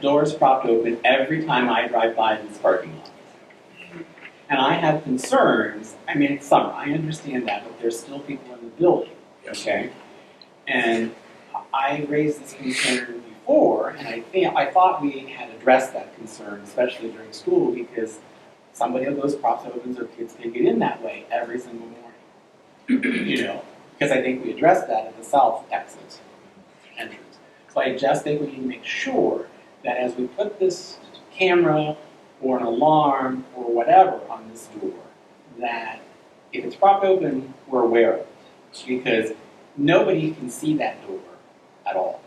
doors propped open every time I drive by this parking lot. And I have concerns, I mean, it's summer, I understand that, but there's still people in the building, Yes. okay? And I raised this concern before, and I think, I thought we had addressed that concern, especially during school, because somebody of those props opens or kids can get in that way every single morning. You know, because I think we addressed that at the south exit entrance. So I just think we need to make sure that as we put this camera or an alarm or whatever on this door, that if it's propped open, we're aware of it. Because nobody can see that door at all.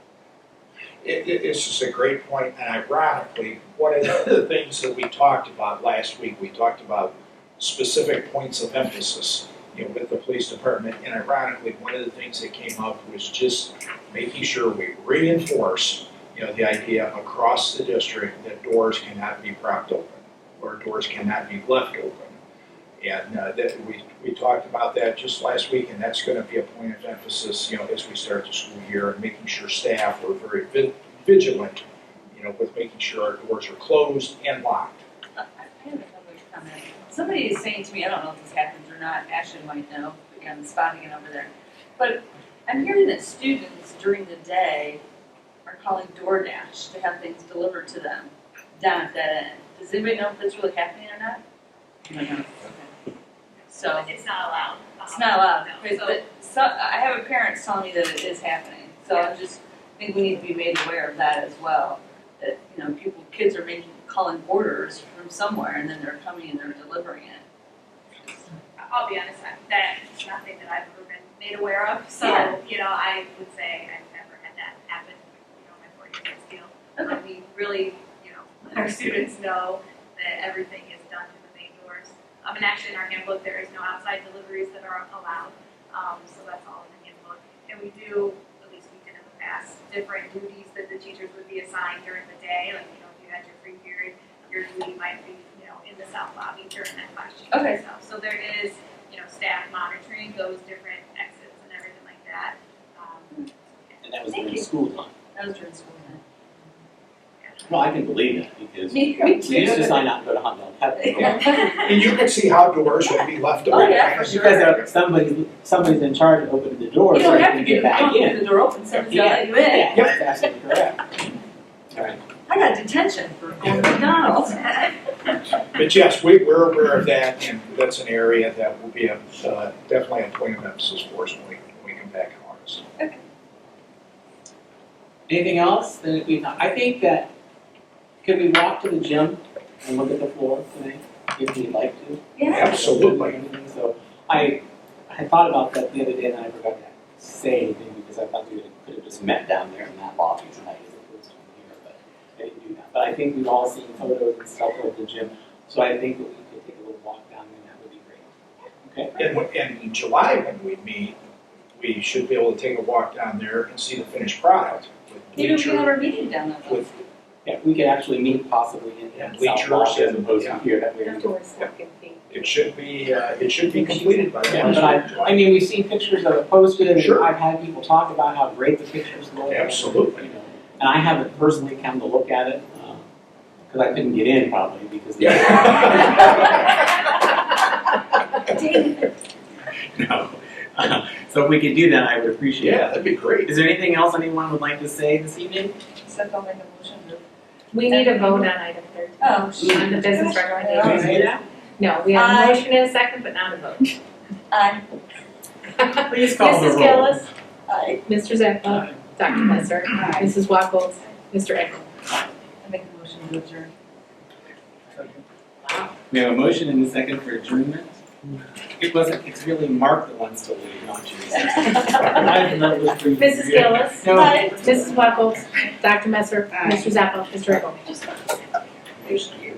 It, it, it's just a great point, and ironically, one of the things that we talked about last week, we talked about specific points of emphasis, you know, with the police department, and ironically, one of the things that came up was just making sure we reinforce, you know, the idea across the district that doors cannot be propped open, or doors cannot be left open. And, uh, that, we, we talked about that just last week, and that's gonna be a point of emphasis, you know, as we start the school year, and making sure staff are very vi- vigilant, you know, with making sure our doors are closed and locked. I I have another comment. Somebody is saying to me, I don't know if this happens or not, Ashton might know, but I'm spotting it over there. But I'm hearing that students during the day are calling DoorDash to have things delivered to them down at that end. Does anybody know if that's really happening or not? Okay. So, It's not allowed. Um, it's not allowed, but, So- but so, I have a parent telling me that it is happening, so I just think we need to be made aware of that as well. That, you know, people, kids are making, calling orders from somewhere and then they're coming and they're delivering it. I'll be honest, I- that's nothing that I've ever been made aware of, so, Yeah. you know, I would say I've never had that happen, you know, my four years at Steele. But we really, you know, let our students know that everything is done through the main doors. Um, and actually in our handbook, there is no outside deliveries that are allowed, um, so that's all in the handbook. And we do, at least we did in the past, different duties that the teachers would be assigned during the day, like, you know, if you had your free period, your duty might be, you know, in the south lobby during that class change. Okay. itself. So there is, you know, staff monitoring those different exits and everything like that. Um, And that was Thank during you. school time. That was during school night. Well, I can believe that because Me we used to decide not to go to Hot Dog Heaven. And you can see how doors would be left Oh, open. yeah, for Because sure. there- somebody, somebody's in charge of opening the door You so don't they have to can do get the back phone, in. leave the door open, somebody's gotta let you in. Yeah, that's absolutely correct. All right. I got detention for going to McDonald's. But yes, we, we're aware of that, and that's an area that will be a, uh, definitely a point of emphasis for us when we, when we come back in August. Anything else that we, I think that, could we walk to the gym and look at the floor tonight, if we'd like to? Yeah, Absolutely. So I, I thought about that the other day and I forgot to say anything because I thought we could have just met down there in that lobby tonight as opposed to in here, but I didn't do that. But I think we've all seen photos and stuff of the gym, so I think that we could take a little walk down there and that would be great. Okay? And, when- and in July, when we meet, we should be able to take a walk down there and see the finished product with Maybe we can have bleacher, our meeting down there though. with, Yeah, we could actually meet possibly in And the south bleachers lobby as and- opposed to yeah. here that way. it should be, uh, it should be completed by the Yeah, end but of I July. mean, we've seen pictures of it posted, and Sure. I've had people talk about how great the pictures look. Absolutely. You know, And I haven't personally come to look at it, because I couldn't get in probably because. No. So if we could do that, I would appreciate Yeah, it. that'd be great. Is there anything else anyone would like to say this evening? Except I'll make a motion to. We need a vote on item thirteen, Oh, on the business Can we recommendation. say that? No, we have Aye. a motion and a second, but not a vote. Aye. Please call the roll. Mrs. Gillis, Aye. Mr. Zappa, Aye. Dr. Messer, Aye. Mrs. Wackles, Mr. Engel. I make a motion to adjourn. We have a motion and a second for adjournment. It wasn't, it's really Mark that wants to leave, not you. I didn't know it was for you. Mrs. Gillis, No. Mrs. Wackles, Dr. Messer, Mr. Zappa, Mr. Engel. Thank you.